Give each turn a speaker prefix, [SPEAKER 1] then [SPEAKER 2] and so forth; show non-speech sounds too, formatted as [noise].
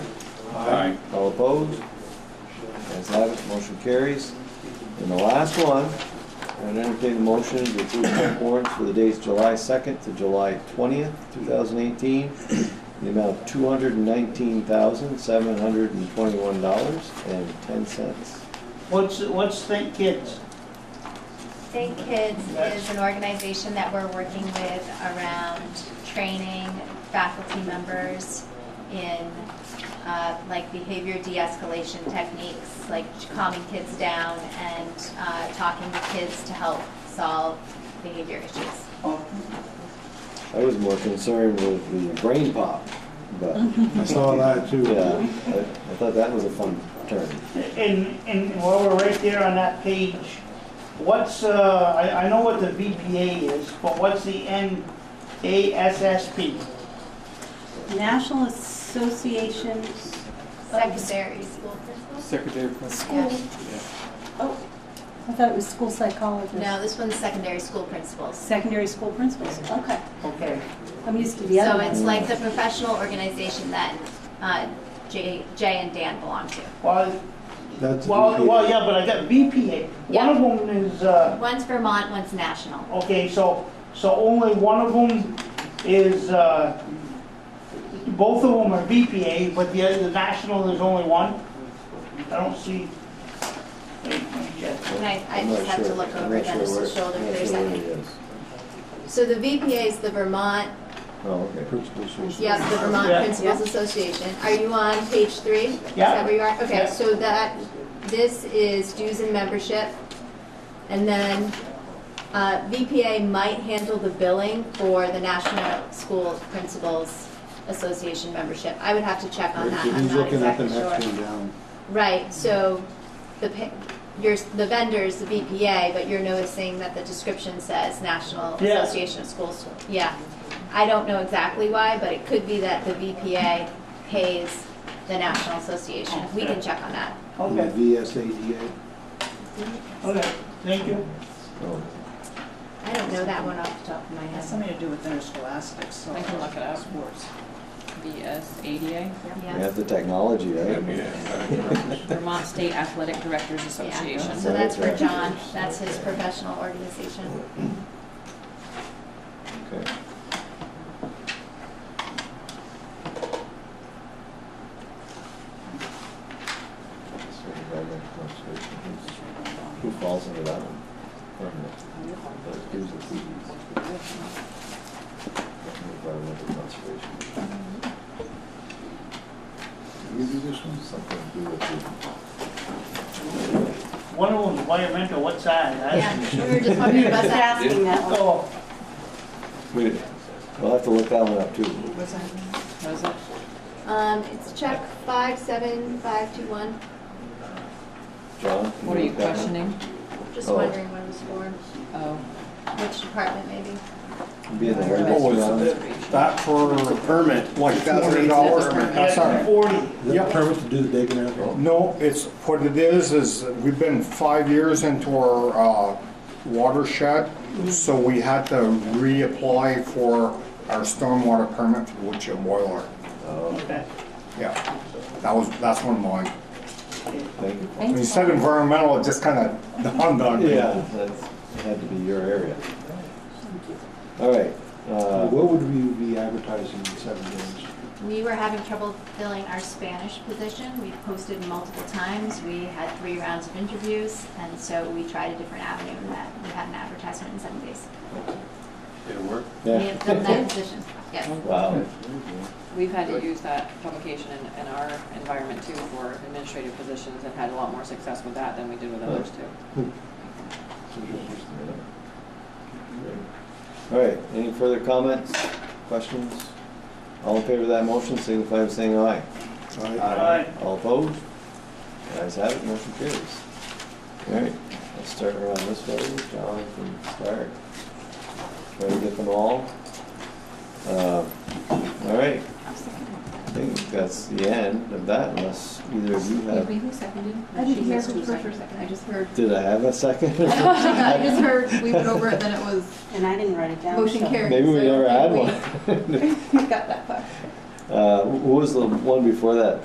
[SPEAKER 1] opposed? As have it, motion carries. And the last one, I'd entertain a motion to approve the warrants for the dates July 2nd to July 20th, 2018, the amount of $219,721.10.
[SPEAKER 2] What's, what's Think Kids?
[SPEAKER 3] Think Kids is an organization that we're working with around training faculty members in, uh, like behavior de-escalation techniques, like calming kids down and, uh, talking to kids to help solve behavior issues.
[SPEAKER 2] Oh,
[SPEAKER 1] I was more concerned with the brain pop, but,
[SPEAKER 4] I saw that too.
[SPEAKER 1] yeah, I I thought that was a fun term.
[SPEAKER 2] And, and while we're right there on that page, what's, uh, I, I know what the VPA is, but what's the NASSP?
[SPEAKER 5] National Association,
[SPEAKER 3] Secondary school principals?
[SPEAKER 6] Secretary of Principal.
[SPEAKER 5] school, oh, I thought it was school psychologist.
[SPEAKER 3] No, this one's secondary school principals.
[SPEAKER 5] Secondary school principals, okay.
[SPEAKER 2] Okay.
[SPEAKER 5] I'm used to the
[SPEAKER 3] So
[SPEAKER 5] other
[SPEAKER 3] it's
[SPEAKER 5] one.
[SPEAKER 3] like the professional organization that, uh, Jay, Jay and Dan belong to.
[SPEAKER 2] Well,
[SPEAKER 4] That's
[SPEAKER 2] well, well,
[SPEAKER 4] VPA.
[SPEAKER 2] yeah, but I got VPA. One of them is, uh,
[SPEAKER 3] One's Vermont, one's national.
[SPEAKER 2] Okay, so, so only one of them is, uh, both of them are BPA, but the other, the national, there's only one? I don't see. wait, let me check.
[SPEAKER 3] And I, I
[SPEAKER 1] I'm not
[SPEAKER 3] just have to
[SPEAKER 1] sure.
[SPEAKER 3] look
[SPEAKER 1] I'm
[SPEAKER 3] over
[SPEAKER 1] not sure where-
[SPEAKER 3] Dennis's shoulder
[SPEAKER 1] I'm not
[SPEAKER 3] for a
[SPEAKER 1] sure where
[SPEAKER 3] second.
[SPEAKER 1] it is.
[SPEAKER 3] So the VPA is the Vermont,
[SPEAKER 1] Oh, okay.
[SPEAKER 4] Principal social.
[SPEAKER 3] yes, the Vermont
[SPEAKER 2] Yeah.
[SPEAKER 3] Principals Association. Are you on page three? Is
[SPEAKER 2] Yeah.
[SPEAKER 3] that where you are? Okay,
[SPEAKER 2] Yeah.
[SPEAKER 3] so that, this is dues and membership. And then, uh, VPA might handle the billing for the National School Principals Association membership. I would have to check on that. I'm
[SPEAKER 4] He's
[SPEAKER 3] not
[SPEAKER 4] looking at the
[SPEAKER 3] exactly
[SPEAKER 4] next
[SPEAKER 3] sure.
[SPEAKER 4] one down.
[SPEAKER 3] Right, so the, pa- your, the vendor's the VPA, but you're noticing that the description says National
[SPEAKER 2] Yeah.
[SPEAKER 3] Association of Schools. Yeah. I don't know exactly why, but it could be that the VPA pays the National Association. We can check on that.
[SPEAKER 4] And
[SPEAKER 2] Okay,
[SPEAKER 4] The VSADA.
[SPEAKER 2] okay, thank you.
[SPEAKER 1] Oh.
[SPEAKER 3] I don't know that one off the top of my
[SPEAKER 7] It has
[SPEAKER 3] head.
[SPEAKER 7] something to do with interscholastic, so I can look it up. Sports.
[SPEAKER 8] VS ADA,
[SPEAKER 1] We
[SPEAKER 3] Yeah.
[SPEAKER 1] have the technology, right?
[SPEAKER 8] Vermont State Athletic Directors Association.
[SPEAKER 3] Yeah. So that's for John. That's his professional organization.
[SPEAKER 1] Okay. Who falls under that one? Environmental conservation. You do this one? Something to do with
[SPEAKER 2] One of them's environmental, what size? I-
[SPEAKER 3] Yeah, we were just wondering about
[SPEAKER 5] Just
[SPEAKER 3] that.
[SPEAKER 5] asking that one.
[SPEAKER 2] Oh,
[SPEAKER 1] the. We'll have to look that one up too.
[SPEAKER 7] Was that?
[SPEAKER 8] Was it?
[SPEAKER 3] Um, it's check five seven five two one.
[SPEAKER 1] John? can
[SPEAKER 8] What are you
[SPEAKER 1] look that one?
[SPEAKER 8] questioning?
[SPEAKER 3] Just
[SPEAKER 1] Oh.
[SPEAKER 3] wondering when it was formed,
[SPEAKER 8] Oh.
[SPEAKER 3] which department maybe.
[SPEAKER 1] Be in the
[SPEAKER 4] Oh,
[SPEAKER 1] Heritage Grounds.
[SPEAKER 4] That for a permit, like forty dollars.
[SPEAKER 2] that's forty.
[SPEAKER 4] Yeah, permit to do the digging out.
[SPEAKER 9] No, it's, what it is, is we've been five years into our uh, watershed, so we had to reapply for our stormwater permit for the wood chip boiler.
[SPEAKER 2] Okay.
[SPEAKER 9] Yeah, that was, that's one of mine.
[SPEAKER 1] Thank you.
[SPEAKER 9] When you said environmental, it just kind of dawned on me.
[SPEAKER 1] Yeah, that's, had to be your area. All right, uh,
[SPEAKER 4] What would we be advertising in seven days?
[SPEAKER 3] We were having trouble filling our Spanish position. We posted multiple times. We had three rounds of interviews, and so we tried a different avenue in that we had an advertisement in seven days. We
[SPEAKER 1] yeah,
[SPEAKER 3] have filled that position, yes.
[SPEAKER 1] wow,
[SPEAKER 8] We've had to use that publication in, in our environment too for administrative positions and had a lot more success with that than we did with others too.
[SPEAKER 1] all right, any further comments, questions? All in favor of that motion, signify by saying aye.
[SPEAKER 2] All right.
[SPEAKER 1] All opposed? Guys have it, motion carries. All right, let's start around this way, John can start. Try to get them all. Uh, All right. I think that's the end of that unless either of you have,
[SPEAKER 8] who seconded?
[SPEAKER 5] I didn't hear who first or
[SPEAKER 8] second. I just heard. [laughs]
[SPEAKER 1] did I have a second?
[SPEAKER 8] I just heard, we went over it, then it was
[SPEAKER 5] And I didn't write it down. so-
[SPEAKER 1] Maybe we never had one. [laughs]
[SPEAKER 8] I got that far.
[SPEAKER 1] Uh, wh- What was the one before that?